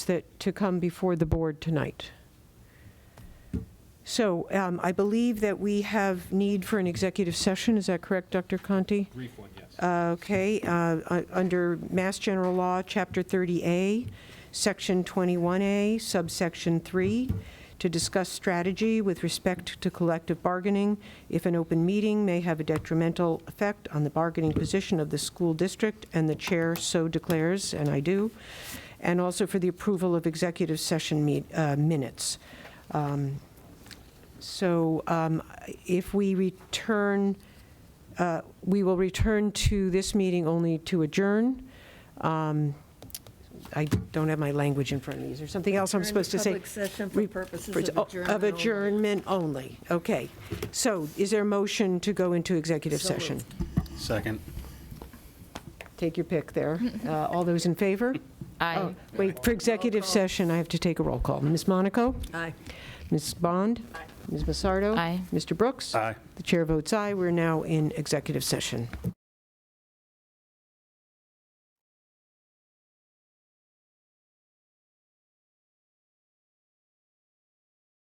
that, to come before the board tonight. So um, I believe that we have need for an executive session, is that correct, Dr. Conti? Brief one, yes. Uh, Okay, uh, u- under Mass General Law, Chapter 30A, Section 21A, subsection 3, to discuss strategy with respect to collective bargaining if an open meeting may have a detrimental effect on the bargaining position of the school district, and the chair so declares, and I do, and also for the approval of executive session meet- uh, minutes. Um, So um, if we return uh, we will return to this meeting only to adjourn. Um, I don't have my language in front of me. Is there something else I'm Return to supposed to say? public session for Re- purposes for- of oh, adjournment Of only. adjournment only, okay. So is there a motion to go into executive So session? Second. Take your pick there. Uh, All those in favor? Aye. Oh, Wait, for executive session, I have to take a roll call. Ms. Monaco? Aye. Ms. Bond? Ms. Massardo? Aye. Mr. Brooks? Aye. The chair votes aye. We're now in executive session.